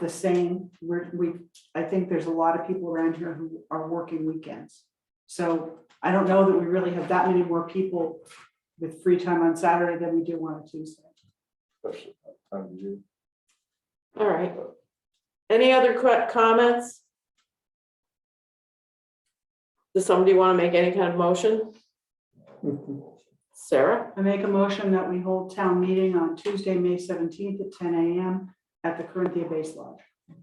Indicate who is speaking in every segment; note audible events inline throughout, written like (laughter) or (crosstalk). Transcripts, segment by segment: Speaker 1: the same, we're, we, I think there's a lot of people around here who are working weekends. So I don't know that we really have that many more people with free time on Saturday than we do on a Tuesday.
Speaker 2: especially that time of year.
Speaker 3: All right. Any other que- comments? Does somebody want to make any kind of motion? Sarah,
Speaker 1: I make a motion that we hold town meeting on Tuesday, May seventeenth at ten AM at the Corinthia Base Lodge.
Speaker 3: do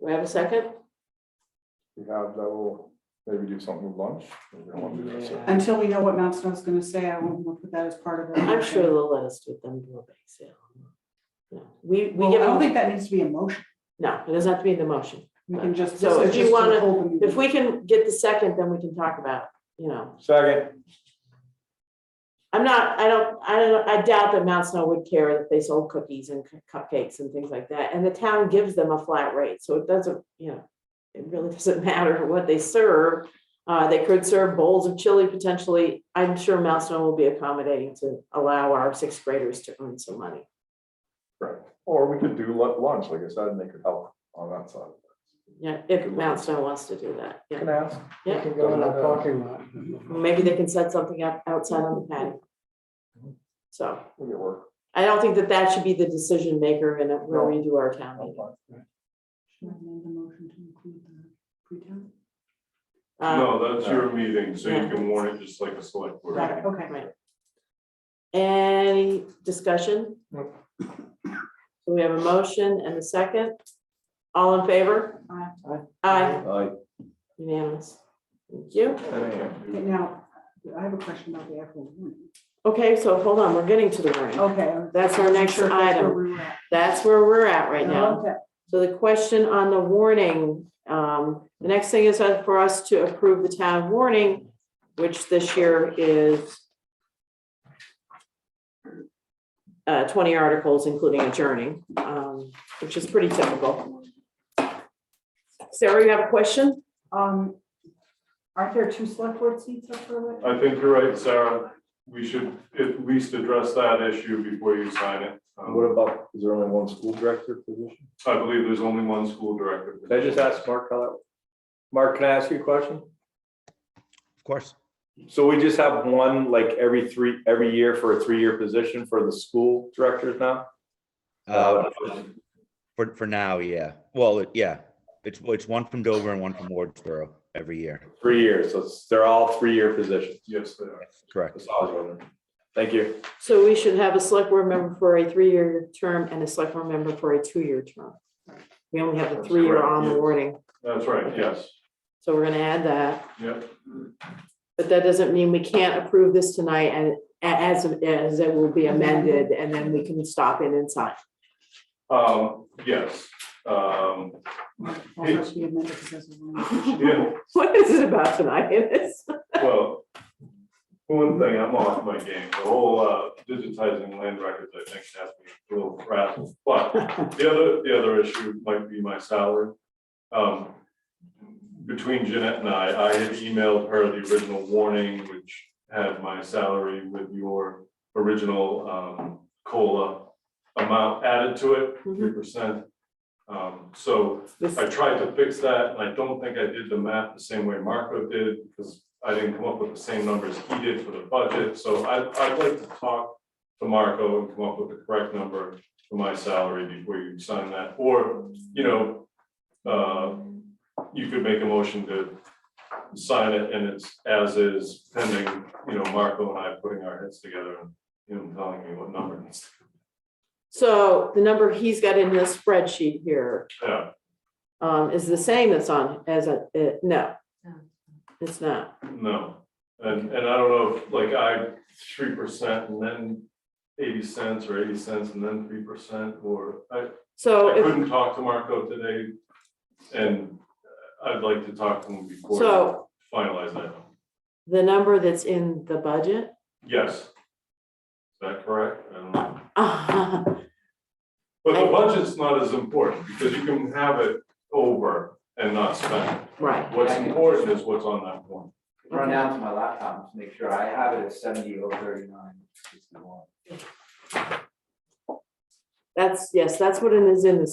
Speaker 3: we have a second?
Speaker 2: We have that will maybe do something with lunch. maybe we don't wanna do that, so-
Speaker 1: Until we know what Mount Snow's gonna say, I won't we'll put that as part of it.
Speaker 3: I'm sure they'll let us do them do a bake sale. No, we, we
Speaker 1: Well, I
Speaker 3: give
Speaker 1: don't
Speaker 3: them,
Speaker 1: think that needs to be a motion.
Speaker 3: no, it doesn't have to be in the motion.
Speaker 1: We can just.
Speaker 3: So
Speaker 1: this is
Speaker 3: if you
Speaker 1: just to
Speaker 3: wanna-
Speaker 1: hold the meeting.
Speaker 3: If we can get the second, then we can talk about, you know,
Speaker 2: Second,
Speaker 3: I'm not, I don't, I don't, I doubt that Mount Snow would care that they sold cookies and cu- cupcakes and things like that, and the town gives them a flat rate, so it doesn't, you know. It really (laughs) doesn't matter what they serve, uh, they could serve bowls of chili potentially, I'm sure Mount Snow will be accommodating to allow our sixth graders to earn some money.
Speaker 2: or we could do lu- lunch, like I said, and they could help on that side.
Speaker 3: Yeah, if Mount Snow wants to do that, yeah,
Speaker 2: Can ask.
Speaker 3: Yeah.
Speaker 4: They can go in our parking lot.
Speaker 3: maybe they can set something up outside on the patio. So,
Speaker 2: We can work.
Speaker 3: I don't think that that should be the decision maker in a- where we do our town meeting.
Speaker 1: Should I amend the motion to include the pre-town?
Speaker 3: Uh,
Speaker 5: No, that's your meeting, so
Speaker 3: Yeah.
Speaker 5: you can warn it just like a select board.
Speaker 1: Got it, okay.
Speaker 3: Right. Any discussion?
Speaker 2: Nope.
Speaker 3: So we have a motion and a second. All in favor?
Speaker 1: Aye.
Speaker 3: Aye,
Speaker 2: Aye.
Speaker 3: unanimous. Thank you.
Speaker 1: Okay, Now, I have a question about the actual warning.
Speaker 3: Okay, so hold on, we're getting to the warning.
Speaker 1: Okay.
Speaker 3: That's our next
Speaker 1: Sure, that's where
Speaker 3: item.
Speaker 1: we were at.
Speaker 3: That's where we're at right now.
Speaker 1: Okay.
Speaker 3: So the question on the warning, um, the next thing is for us to approve the town warning, which this year is uh, twenty articles, including adjourning, um, which is pretty typical. Sarah, you have a question?
Speaker 1: Um, aren't there two select board seats up for election?
Speaker 5: I think you're right, Sarah. We should at least address that issue before you sign it. Um,
Speaker 6: What about, is there only one school director position?
Speaker 5: I believe there's only one school director.
Speaker 6: Can I just ask Mark how that? Mark, can I ask you a question?
Speaker 7: Of course.
Speaker 6: So we just have one, like, every three, every year for a three-year position for the school directors now?
Speaker 7: Uh, for, for now, yeah. Well, it- yeah, it's, it's one from Dover and one from Wardsboro every year.
Speaker 6: Three years, so it's- they're all three-year positions.
Speaker 5: Yes, they are.
Speaker 7: Correct.
Speaker 6: That's all I was wondering. Thank you.
Speaker 3: So we should have a select board member for a three-year term and a select board member for a two-year term. We only have the
Speaker 5: That's
Speaker 3: three-year
Speaker 5: correct,
Speaker 3: on the
Speaker 5: yeah.
Speaker 3: warning,
Speaker 5: That's right, yes,
Speaker 3: so we're gonna add that.
Speaker 5: yep.
Speaker 3: But that doesn't mean we can't approve this tonight and a- as, as it will be amended and then we can stop in and sign. (laughs)
Speaker 5: Um, yes, um,
Speaker 1: Also should be amended because there's a warning.
Speaker 5: (laughs) yeah,
Speaker 3: What is it about tonight? (laughs) It's-
Speaker 5: well. One thing, I'm off my game, the whole uh, digitizing land records, I think, has me a little frazzled, but The other, the other issue might be my salary. Um, Between Jeanette and I, I had emailed her the original warning, which had my salary with your original um, COLA amount added to it, three percent. So
Speaker 3: this-
Speaker 5: I tried to fix that, and I don't think I did the math the same way Marco did, because I didn't come up with the same numbers he did for the budget, so I, I'd like to talk to Marco and come up with the correct number for my salary before you sign that, or, you know, uh, you could make a motion to sign it, and it's as is pending, you know, Marco and I putting our heads together and him telling me what number needs to,
Speaker 3: So the number he's got in this spreadsheet here
Speaker 5: yeah,
Speaker 3: um, is the same that's on as a, uh, no. It's not.
Speaker 5: no. And, and I don't know, if like I, three percent and then eighty cents or eighty cents and then three percent, or I,
Speaker 3: So
Speaker 5: I
Speaker 3: if,
Speaker 5: couldn't talk to Marco today. And I'd like to talk to him before you
Speaker 3: so
Speaker 5: finalize that.
Speaker 3: the number that's in the budget. (laughs)
Speaker 5: Yes. Is that correct? I don't know.
Speaker 3: But
Speaker 5: But the
Speaker 3: I-
Speaker 5: budget's not as important because you can have it over and not spend. it.
Speaker 3: Right.
Speaker 5: What's important is what's on that one.
Speaker 4: Run down to my laptop to make sure I have it at seventy over thirty-nine.
Speaker 3: That's, yes, that's what it is in the